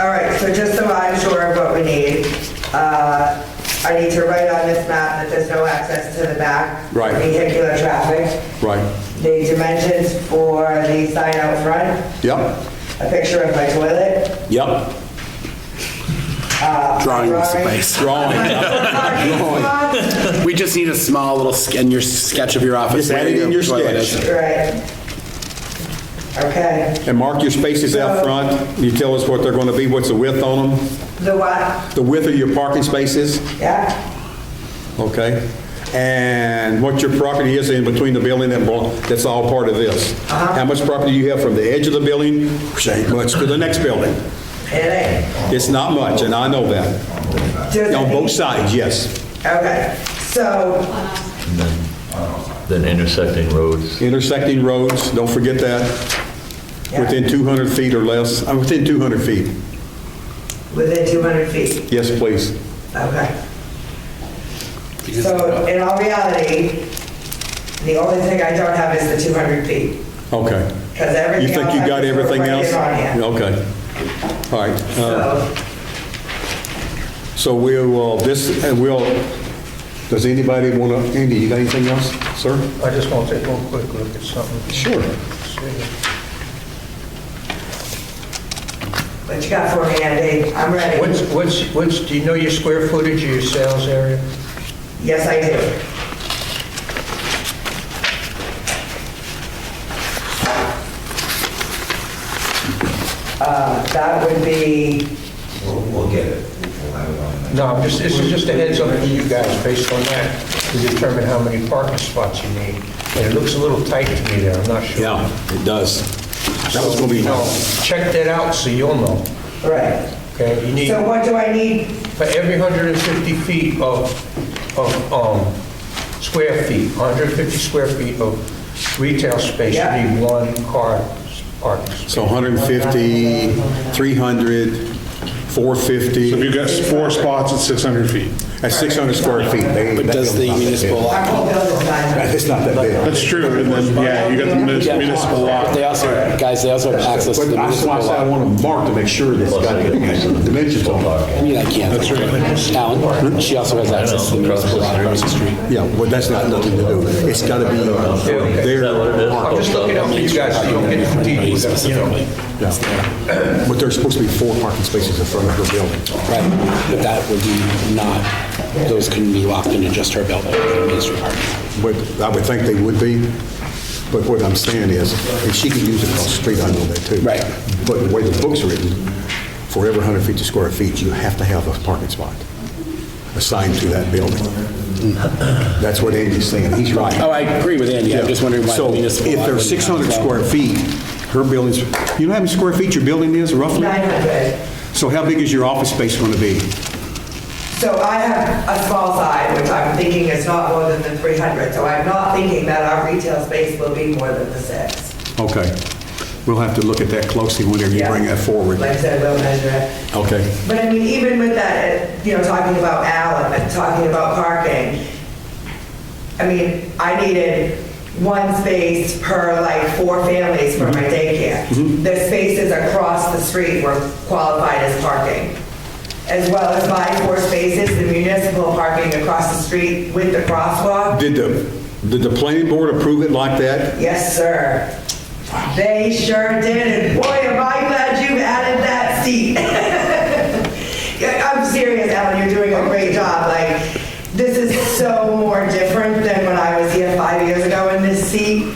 All right, so just so I'm sure of what we need, uh, I need to write on this map that there's no access to the back. Right. Vehicular traffic. Right, The dimensions for the sign out front, yep, a picture of my toilet. yep. uh, Drawing is the drawing. base. Drawing, yep. Parking spots. We just need a small little sk- in your sketch of your office. Just add where it in your toilet is. sketch. Right. Okay, and mark your spaces out front. You tell us what they're going to be, what's the width on them, the what? the width of your parking spaces, Yeah, okay? And what your property is in between the building and, blo- that's all part of this. How much property you have from the edge of the building, say, much to the next building. it is. It's not much, and I know that. Does On it- both sides, yes. Okay, so, Then intersecting roads. Intersecting roads, don't forget that, within 200 feet or less, uh, within 200 feet. within 200 feet. Yes, please. Okay. So in all reality, the only thing I don't have is the 200 feet, Okay. because You everything else. think you I got just put everything right else? in on Okay. All right. here. uh, So, So we will, this, and we'll, does anybody want to, Andy, you got anything else, sir? I just want to take one quick look at something. Sure. See. what you got for me, Andy? I'm What's, ready. what's, what's, do you know your square footage of your sales area? Yes, I do. Uh, That would be, We'll, we'll get it. We'll have it on the next. No, I'm just, this is just a heads up for you guys based on that to determine how many parking spots you need. And it looks a little tight to me there, I'm not sure. Yeah, it does. That was going to be, No, Check that out so you'll know, right. okay? You need, So what do I need? for every 150 feet of, of, um, square feet, 150 square feet of retail space, Yeah. you need one car parking space. so 150, 300, 450. So if you've got four spots at 600 feet. At 600 square feet. they- But that does the building's not that big. municipal Our law? whole building size. It's not that big. That's true, and then, yeah, you got the munis- municipal But lot. They also, guys, they also have access to But the that's municipal why I said I law. want to mark to make sure that's got the dimensions on it. I mean, I can't. Alan, she also has access to the municipal law across the street. Yeah, well, that's not nothing to do. It's got to be there, I'm just looking out for you guys so you don't get too deep with it, you know? but there's supposed to be four parking spaces in front of her building. Right, but that would be not, those couldn't be locked into just her building, the municipal parking. But I would think they would be, but what I'm saying is, if she could use it across the street, I know that too. Right. But the way the book's written, for every 150 square feet, you have to have a parking spot assigned to that building. That's what Andy's saying, he's right. Oh, I agree with Andy, I'm just wondering why the municipal So law if wouldn't there's 600 have that. square feet, her building's, you know how many square feet your building is roughly? 900. So how big is your office space going to be? So I have a small side, which I'm thinking is not more than the 300, so I'm not thinking that our retail space will be more than the six. Okay. We'll have to look at that closely whenever you Yeah. bring that forward. Like I said, we'll measure it. Okay. But I mean, even with that, uh, you know, talking about Allen and talking about parking, I mean, I needed one space per like four families for my daycare. The spaces across the street were qualified as parking, as well as my four spaces, the municipal parking across the street with the crosswalk. Did the, did the planning board approve it like that? Yes, sir. They sure did, and boy, am I glad you added that seat. Yeah, I'm serious, Ellen, you're doing a great job, like, this is so more different than when I was here five years ago in this seat.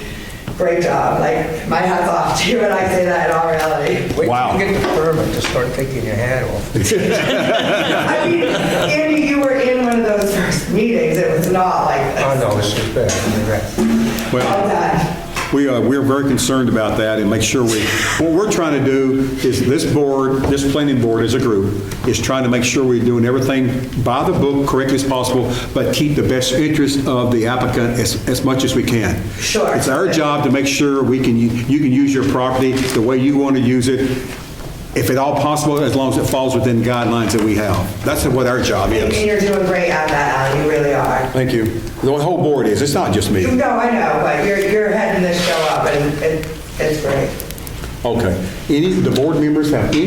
Great job, like, my hat's off to you, and I say that in all reality. Wait Wow. till you get the permit to start taking your hat off. I mean, Andy, you were in one of those first meetings, it was not like I this. know, Oh, this is bad, you're All right. Well, that. we are, we're very concerned about that and make sure we, what we're trying to do is this board, this planning board as a group, is trying to make sure we're doing everything by the book correctly as possible, but keep the best interest of the applicant as, as much as we can. Sure. It's our job to make sure we can, u- you can use your property the way you want to use it, if at all possible, as long as it falls within guidelines that we have. That's what our job I mean, is. you're doing great at that, Ellen, you really are. Thank you. The whole board is, it's not just me. No, I know, but you're, you're heading this show up, and it- it's great. Okay. Any, the board members have any